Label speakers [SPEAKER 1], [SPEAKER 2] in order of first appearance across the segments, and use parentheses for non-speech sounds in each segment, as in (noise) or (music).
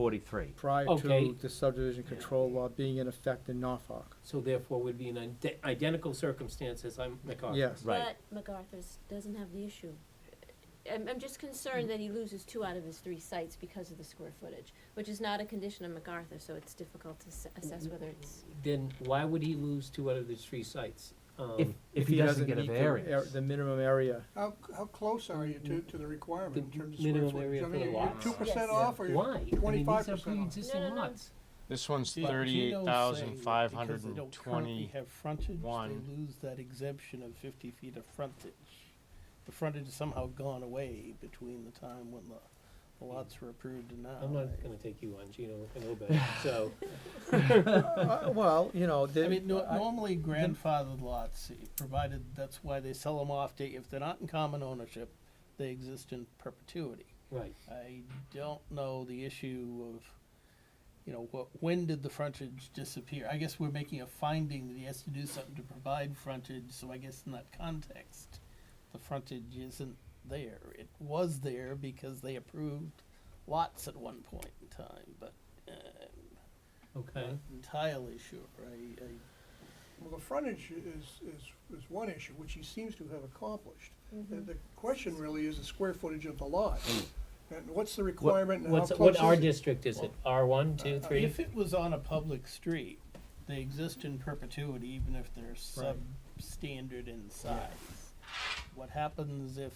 [SPEAKER 1] 43.
[SPEAKER 2] prior
[SPEAKER 3] Okay.
[SPEAKER 2] to the subdivision control law being in effect in Norfolk.
[SPEAKER 3] So therefore, would be in ide- identical circumstances, I'm MacArthur.
[SPEAKER 2] Yes.
[SPEAKER 1] Right.
[SPEAKER 4] But MacArthur's doesn't have the issue. I'm, I'm just concerned that he loses two out of his three sites because of the square footage, which is not a condition of MacArthur, so it's difficult to s-
[SPEAKER 5] Mm-hmm.
[SPEAKER 4] assess whether it's,
[SPEAKER 3] Then why would he lose two out of those three sites? Um,
[SPEAKER 1] If, if he doesn't get a
[SPEAKER 2] meet
[SPEAKER 5] uh,
[SPEAKER 2] the ar-
[SPEAKER 1] variance.
[SPEAKER 2] The minimum area.
[SPEAKER 6] How, how close are you to, to the requirement in
[SPEAKER 3] The
[SPEAKER 6] terms of
[SPEAKER 3] minimum
[SPEAKER 6] square
[SPEAKER 3] area
[SPEAKER 6] footage? I
[SPEAKER 3] for the
[SPEAKER 6] mean,
[SPEAKER 3] lots.
[SPEAKER 6] Two percent
[SPEAKER 4] Yes.
[SPEAKER 6] off or you're
[SPEAKER 3] Why? I mean, these are
[SPEAKER 6] 25% off.
[SPEAKER 3] pre-existing
[SPEAKER 4] No, no, no.
[SPEAKER 3] lots.
[SPEAKER 7] This one's
[SPEAKER 5] But
[SPEAKER 7] thirty-eight thousand five hundred
[SPEAKER 5] Because they
[SPEAKER 7] and
[SPEAKER 5] don't currently
[SPEAKER 7] twenty.
[SPEAKER 5] have frontage,
[SPEAKER 7] one.
[SPEAKER 5] they lose that exemption of fifty feet of frontage. The frontage has somehow gone away between the time when the the lots were approved and now.
[SPEAKER 3] I'm not
[SPEAKER 5] I-
[SPEAKER 3] gonna take you on, Gino, I know
[SPEAKER 6] (laughs)
[SPEAKER 3] better, so,
[SPEAKER 2] Uh, Well, you know, the.
[SPEAKER 5] I mean, no- normally grandfathered lots, eh, provided, that's why they sell them off, to- if they're not in common ownership, they exist in perpetuity.
[SPEAKER 3] right.
[SPEAKER 5] I don't know the issue of, you know, what, when did the frontage disappear? I guess we're making a finding that he has to do something to provide frontage, so I guess in that context, the frontage isn't there. It was there because they approved lots at one point in time, but uh,
[SPEAKER 3] Okay.
[SPEAKER 5] not entirely sure. I, I
[SPEAKER 6] Well, the frontage is, is, is one issue, which he seems to have accomplished. The,
[SPEAKER 4] Mhm.
[SPEAKER 6] the question really is the square footage of the lot. And what's the requirement and how
[SPEAKER 3] What's,
[SPEAKER 6] close
[SPEAKER 3] what
[SPEAKER 6] is
[SPEAKER 3] R
[SPEAKER 6] it?
[SPEAKER 3] district is it? R one, two,
[SPEAKER 5] Uh,
[SPEAKER 3] three?
[SPEAKER 5] If it was on a public street, they exist in perpetuity, even if they're substandard in size. What happens if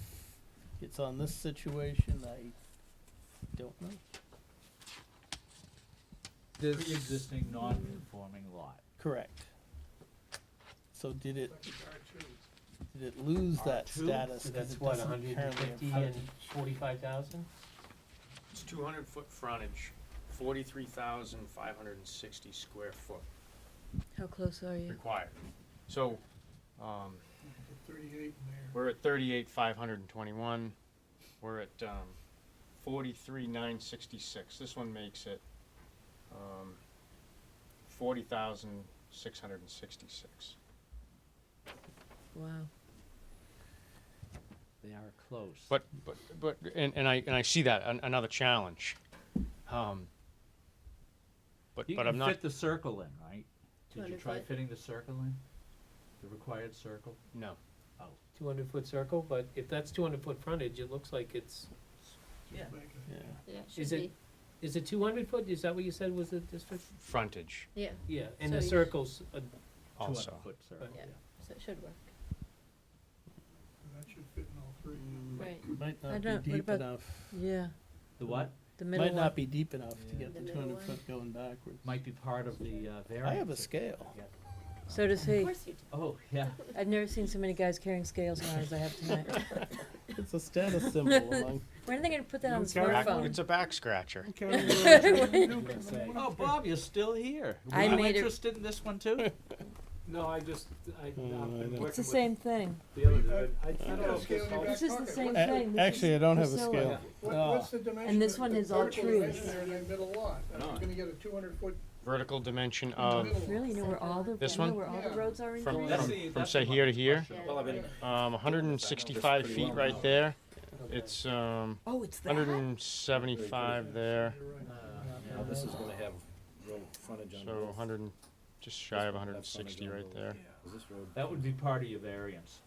[SPEAKER 5] it's on this situation, I don't know.
[SPEAKER 2] this-
[SPEAKER 1] Pre-existing non-conforming lot.
[SPEAKER 5] Correct. So did it,
[SPEAKER 6] R2.
[SPEAKER 5] did it lose that
[SPEAKER 3] R2?
[SPEAKER 5] status?
[SPEAKER 3] So
[SPEAKER 5] 'cause
[SPEAKER 3] that's
[SPEAKER 5] it
[SPEAKER 3] what,
[SPEAKER 5] doesn't
[SPEAKER 3] hundred and
[SPEAKER 5] currently
[SPEAKER 3] fifty
[SPEAKER 5] have-
[SPEAKER 3] and forty-five thousand?
[SPEAKER 7] It's two hundred foot frontage, forty-three thousand five hundred and sixty square foot
[SPEAKER 4] How close are you?
[SPEAKER 7] required. So, um,
[SPEAKER 6] Thirty-eight in there.
[SPEAKER 7] we're at thirty-eight five hundred and twenty-one, we're at, um, forty-three nine sixty-six. This one makes it, um, forty thousand six hundred and sixty-six.
[SPEAKER 4] Wow.
[SPEAKER 1] They are close.
[SPEAKER 7] But, but, but, and, and I, and I see that, an- another challenge. Um, But,
[SPEAKER 1] You
[SPEAKER 7] but I'm
[SPEAKER 1] can
[SPEAKER 7] not,
[SPEAKER 1] fit the circle in, right? Did you
[SPEAKER 4] 200
[SPEAKER 1] try
[SPEAKER 4] foot.
[SPEAKER 1] fitting the circle in? The required circle?
[SPEAKER 7] no.
[SPEAKER 3] Two hundred foot circle, but if that's two hundred foot frontage, it looks like it's,
[SPEAKER 5] Yeah.
[SPEAKER 4] Yeah, it should
[SPEAKER 3] is it,
[SPEAKER 4] be,
[SPEAKER 3] is it two hundred foot? Is that what you said was the district?
[SPEAKER 7] frontage
[SPEAKER 4] yeah,
[SPEAKER 3] Yeah, and
[SPEAKER 4] So
[SPEAKER 3] the
[SPEAKER 4] you-
[SPEAKER 3] circles, uh,
[SPEAKER 7] also.
[SPEAKER 1] 200-foot circle,
[SPEAKER 4] Yeah.
[SPEAKER 1] yeah.
[SPEAKER 4] so it should work.
[SPEAKER 6] That should fit in all three.
[SPEAKER 4] Right.
[SPEAKER 5] Might
[SPEAKER 8] I
[SPEAKER 5] not
[SPEAKER 8] don't- what
[SPEAKER 5] be deep
[SPEAKER 8] about-
[SPEAKER 5] enough,
[SPEAKER 8] Yeah,
[SPEAKER 1] The what?
[SPEAKER 8] the
[SPEAKER 5] might
[SPEAKER 8] middle one.
[SPEAKER 5] not be deep enough to
[SPEAKER 1] Yeah.
[SPEAKER 5] get the
[SPEAKER 4] The
[SPEAKER 5] two
[SPEAKER 4] middle
[SPEAKER 5] hundred
[SPEAKER 4] one.
[SPEAKER 5] foot going backwards.
[SPEAKER 1] Might be part of the uh, variance.
[SPEAKER 5] I have a
[SPEAKER 1] that-
[SPEAKER 3] (laughs)
[SPEAKER 5] scale.
[SPEAKER 1] yeah.
[SPEAKER 8] So does he.
[SPEAKER 4] Of course you do.
[SPEAKER 1] Oh,
[SPEAKER 5] (laughs)
[SPEAKER 1] yeah.
[SPEAKER 8] I've never seen so many guys carrying scales around as I have tonight.
[SPEAKER 4] (laughs)
[SPEAKER 5] It's a status symbol among.
[SPEAKER 8] When are they gonna put that on the
[SPEAKER 7] Back-
[SPEAKER 8] smartphone?
[SPEAKER 7] It's a back scratcher.
[SPEAKER 9] (laughs)
[SPEAKER 1] Oh, Bob, you're still here. Were
[SPEAKER 8] I
[SPEAKER 1] you
[SPEAKER 8] made a-
[SPEAKER 1] interested in this one too?
[SPEAKER 9] No, I just, I, I've been
[SPEAKER 5] Oh, I know.
[SPEAKER 9] working
[SPEAKER 8] It's the
[SPEAKER 9] with
[SPEAKER 8] same thing.
[SPEAKER 9] the other dude, I, I don't know if
[SPEAKER 6] Scale
[SPEAKER 9] this
[SPEAKER 6] in your
[SPEAKER 9] helps.
[SPEAKER 6] back
[SPEAKER 8] This is the
[SPEAKER 6] pocket.
[SPEAKER 8] same
[SPEAKER 6] What-
[SPEAKER 5] A-
[SPEAKER 8] thing. This
[SPEAKER 5] Actually,
[SPEAKER 8] is
[SPEAKER 5] I don't have a
[SPEAKER 8] Priscilla.
[SPEAKER 5] scale.
[SPEAKER 6] What,
[SPEAKER 5] Ah.
[SPEAKER 6] what's the
[SPEAKER 3] Oh.
[SPEAKER 6] dimension?
[SPEAKER 8] this
[SPEAKER 6] of
[SPEAKER 8] one
[SPEAKER 6] the
[SPEAKER 8] is all
[SPEAKER 6] vertical
[SPEAKER 8] trees.
[SPEAKER 6] dimension in that middle lot? Are you gonna get a two hundred foot
[SPEAKER 7] Vertical dimension
[SPEAKER 6] middle
[SPEAKER 7] of,
[SPEAKER 6] lot?
[SPEAKER 8] Really, you know where all the,
[SPEAKER 7] This
[SPEAKER 8] you know
[SPEAKER 7] one?
[SPEAKER 8] where all the
[SPEAKER 6] Yeah.
[SPEAKER 8] roads are in
[SPEAKER 7] from,
[SPEAKER 8] Greece?
[SPEAKER 9] That's
[SPEAKER 7] from,
[SPEAKER 9] the-
[SPEAKER 7] from
[SPEAKER 9] that's
[SPEAKER 7] say
[SPEAKER 9] the
[SPEAKER 7] here to
[SPEAKER 9] one.
[SPEAKER 7] here,
[SPEAKER 4] Yeah.
[SPEAKER 9] Well, I've been,
[SPEAKER 7] um, hundred and sixty-five
[SPEAKER 9] Just
[SPEAKER 7] feet
[SPEAKER 9] pretty
[SPEAKER 7] right
[SPEAKER 9] well.
[SPEAKER 7] there.
[SPEAKER 3] okay.
[SPEAKER 7] It's, um,
[SPEAKER 8] Oh, it's that?
[SPEAKER 7] hundred and seventy-five there,
[SPEAKER 6] You're right.
[SPEAKER 1] Uh,
[SPEAKER 9] now this is gonna have road frontage on
[SPEAKER 7] so
[SPEAKER 9] both.
[SPEAKER 7] hundred and, just shy of
[SPEAKER 9] That's
[SPEAKER 7] hundred and sixty
[SPEAKER 9] frontage on
[SPEAKER 7] right
[SPEAKER 9] both.
[SPEAKER 7] there.
[SPEAKER 9] Is this road?
[SPEAKER 1] That would be part of your variance.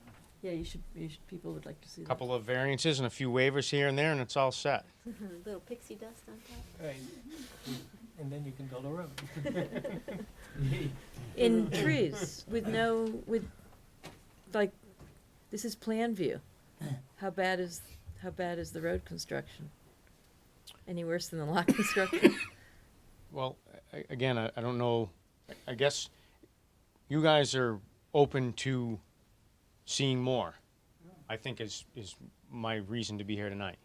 [SPEAKER 8] Yeah, you should, you should, people would like to see that.
[SPEAKER 7] Couple of variances and a few waivers here and there, and it's all set.
[SPEAKER 4] Little pixie dust on top.
[SPEAKER 3] Right, and then you can build a road.
[SPEAKER 8] In trees, with no, with, like, this is plan view. How bad is, how bad is the road construction? Any worse than the lot (laughs) construction?
[SPEAKER 7] Well, a- a- again, I, I don't know, I- I guess you guys are open to seeing more, I think is, is my reason to be here tonight.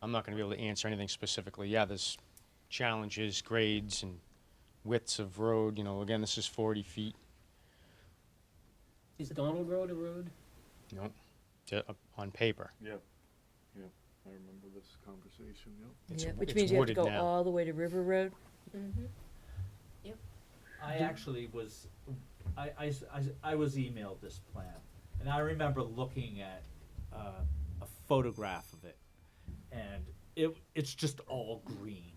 [SPEAKER 7] I'm not gonna be able to answer anything specifically, yeah, there's challenges, grades, and widths of road, you know, again, this is forty feet,
[SPEAKER 3] Is Donald Road a road?
[SPEAKER 7] you know, to, on paper.
[SPEAKER 9] I remember this conversation, yep.
[SPEAKER 7] It's-
[SPEAKER 8] Yeah, Which
[SPEAKER 7] it's
[SPEAKER 8] means you have to
[SPEAKER 7] wooded
[SPEAKER 8] go
[SPEAKER 7] now.
[SPEAKER 8] all the way to River Road?
[SPEAKER 4] Mm-hmm.
[SPEAKER 1] I actually was, I, I s- I s- I was emailed this plan, and I remember looking at uh, a photograph of it, and it it's just all green.